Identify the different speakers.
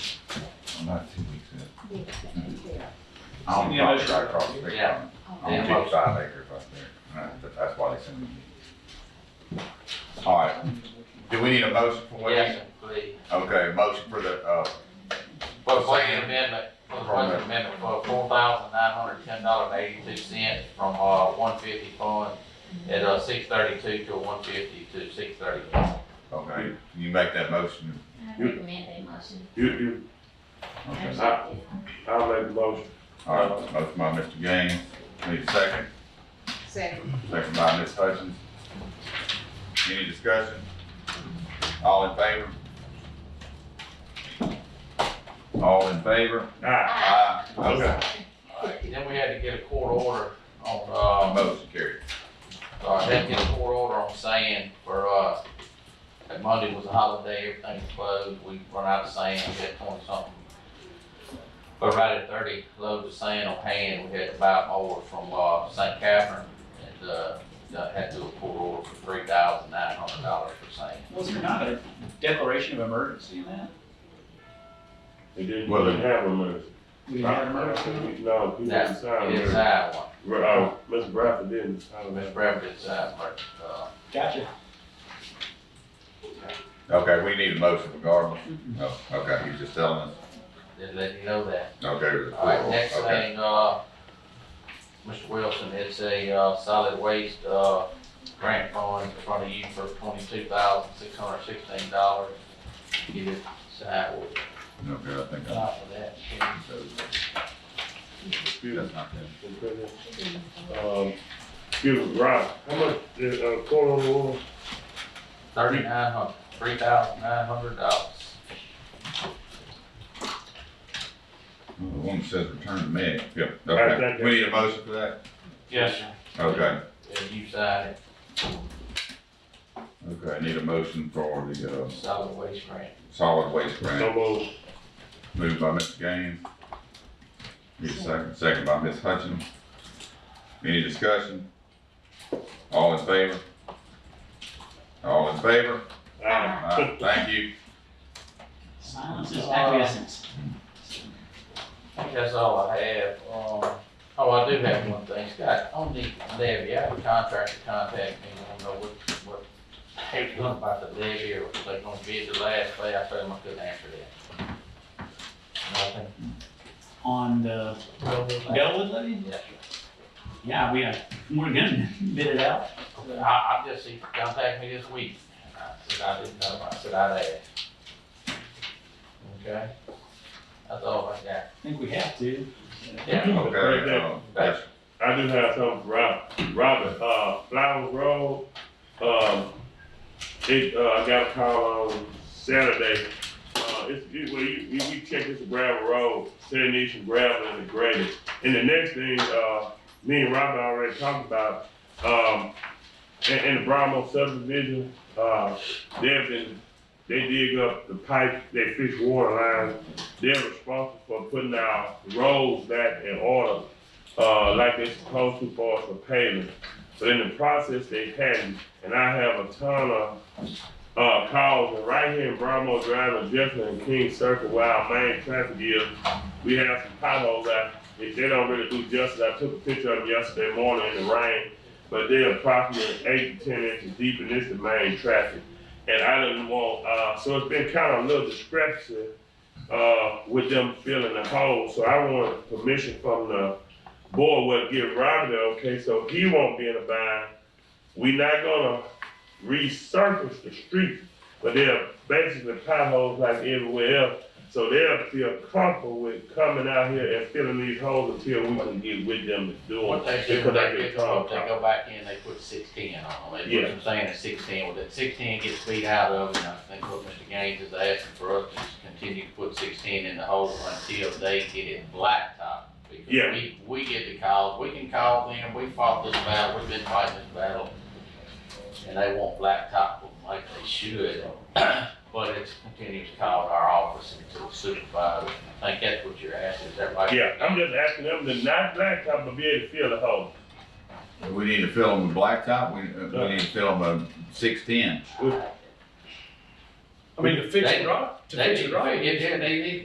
Speaker 1: not two weeks in.
Speaker 2: So
Speaker 1: I don't
Speaker 2: the other-
Speaker 1: talk right across the big
Speaker 3: Yeah.
Speaker 1: one. I don't take five acres up there, and that's, that's why they send me. All right, do we need a motion for what?
Speaker 3: Yes, please.
Speaker 1: Okay, motion for the, uh,
Speaker 3: For the budget amendment, for the budget amendment for four thousand nine hundred ten dollars and eighty-two cents from, uh, one fifty fund at, uh, six thirty-two to one fifty to six thirty-one.
Speaker 1: okay, you make that motion,
Speaker 4: I recommend that motion.
Speaker 5: You, you,
Speaker 1: okay?
Speaker 5: I, I'll make the motion.
Speaker 1: All right, motion by Mr. Gaines, need a second,
Speaker 6: Second.
Speaker 1: second by Ms. Hutchins. Any discussion? All in favor? All in favor?
Speaker 5: Aye.
Speaker 4: Aye.
Speaker 1: Aye, okay,
Speaker 3: Alright, Then we had to get a court order on, uh,
Speaker 1: motion carried.
Speaker 3: uh, had to get a court order on sand for, uh, that Monday was a holiday, everything was closed, we run out of sand, we had twenty something. But right at thirty loads of sand on hand, we had to buy more from, uh, St. Catherine, and, uh, that had to do a court order for three thousand nine hundred dollars for sand.
Speaker 2: Was there not a declaration of emergency in that?
Speaker 5: They didn't
Speaker 1: Well, then-
Speaker 5: have a minute.
Speaker 2: We didn't have an emergency.
Speaker 5: No, people
Speaker 3: That's-
Speaker 5: didn't sign it.
Speaker 3: Inside one,
Speaker 5: Uh, Mr. Bradford didn't sign
Speaker 3: Mr.
Speaker 5: that.
Speaker 3: Bradford inside, but, uh,
Speaker 2: Gotcha.
Speaker 1: Okay, we need a motion regardless.
Speaker 5: Mm-hmm.
Speaker 1: Oh, okay, he's just telling us.
Speaker 3: just let you know that.
Speaker 1: Okay. with the
Speaker 3: All right,
Speaker 1: floor.
Speaker 3: next
Speaker 1: Oh, Okay.
Speaker 3: thing, uh, Mr. Wilson, it's a, uh, solid waste, uh, grant fund in front of you for twenty-two thousand, six hundred sixteen dollars. You just decide what to
Speaker 1: Okay, I think I,
Speaker 3: apply for that.
Speaker 1: so, that's not good.
Speaker 5: Um, excuse me, Rob, how much, is, uh, quarter of the war?
Speaker 3: Thirty-nine hundred, three thousand nine hundred dollars.
Speaker 1: The
Speaker 5: Mm-hmm.
Speaker 1: one says return to me. Yeah,
Speaker 5: Alright, thank
Speaker 1: okay.
Speaker 5: you.
Speaker 1: We need a motion for that?
Speaker 2: Yes,
Speaker 1: Okay,
Speaker 3: And you sign it,
Speaker 1: okay, I need a motion for the, uh,
Speaker 3: solid waste grant.
Speaker 1: solid waste
Speaker 5: No
Speaker 1: grant.
Speaker 5: more.
Speaker 1: Moved by Mr. Gaines. Need a second, second by Ms. Hutchins. Any discussion? All in favor? All in favor?
Speaker 4: Uh-huh.
Speaker 5: Aye.
Speaker 1: Aye, thank you.
Speaker 2: silence is acquiescence.
Speaker 3: That's all I have. Um, oh, I do have one thing. Scott, on the levy, I have a contractor contact me, I don't know what, what, they're doing about the levy or if they're gonna bid the last day. I told them I couldn't answer that.
Speaker 2: On the
Speaker 3: Nothing.
Speaker 2: Bellwood levy?
Speaker 3: Yeah.
Speaker 2: Yeah, we, uh, we're gonna bid it out.
Speaker 3: I, I just, he contacted me this week. I said I didn't know. I said I'd ask. Okay? That's all I got.
Speaker 2: I think we have to.
Speaker 3: Yeah.
Speaker 5: Right
Speaker 1: Okay,
Speaker 5: there.
Speaker 1: uh, that's-
Speaker 5: I do have something for Rob, Robert, uh, Flowers Road, um, it, uh, I got a call on Saturday. Uh, it's, it, well, you, you, you check this gravel road, said need some gravel in the grader. And the next thing, uh, me and Robert already talked about, um, in, in the Bromo subdivision, uh, they've been, they dig up the pipe, they fix water lines. They're responsible for putting our roads back in order uh, like they're supposed to for us for payment. But in the process, they hadn't, and I have a ton of, uh, calls, and right here in Bromo Drive and Jefferson and King Circle, where our main traffic is, we have some potholes out, they, they don't really do justice, I took a picture of them yesterday morning in the rain, but they're approximately eight to ten inches deep, and it's the main traffic. And I didn't want, uh, so it's been kind of a little discrepancy, uh, with them filling the hole, so I want permission from the board would give Robert the okay, so he won't be in a bind. We not gonna resurface the street, but they're basically potholes like everywhere else. So they'll feel comfortable with coming out here and filling these holes until we can get with them to do
Speaker 3: What they
Speaker 5: it.
Speaker 3: do,
Speaker 5: Because I
Speaker 3: they
Speaker 5: get
Speaker 3: get,
Speaker 5: called.
Speaker 3: they go back in, they put sixteen on them, they put
Speaker 5: Yeah.
Speaker 3: some sand at sixteen, well, that sixteen gets beat out of, and I think what Mr. Gaines is asking for us to just continue to put sixteen in the hole until they get it blacktop. Because
Speaker 5: Yeah.
Speaker 3: We, we get the calls, we can call them, we fought this battle, we've been fighting this battle, and they won't blacktop them like they should. But it's continues to call our office and to the supervisor, I think that's what you're asking, is everybody?
Speaker 5: Yeah, I'm just asking them to not blacktop, but be able to fill the hole.
Speaker 1: We need to fill them with blacktop, we, uh, we need to fill them with six-ten.
Speaker 7: I mean, to fix
Speaker 3: They-
Speaker 7: it right, to
Speaker 3: They
Speaker 7: fix
Speaker 3: need,
Speaker 7: it right.
Speaker 3: they, they need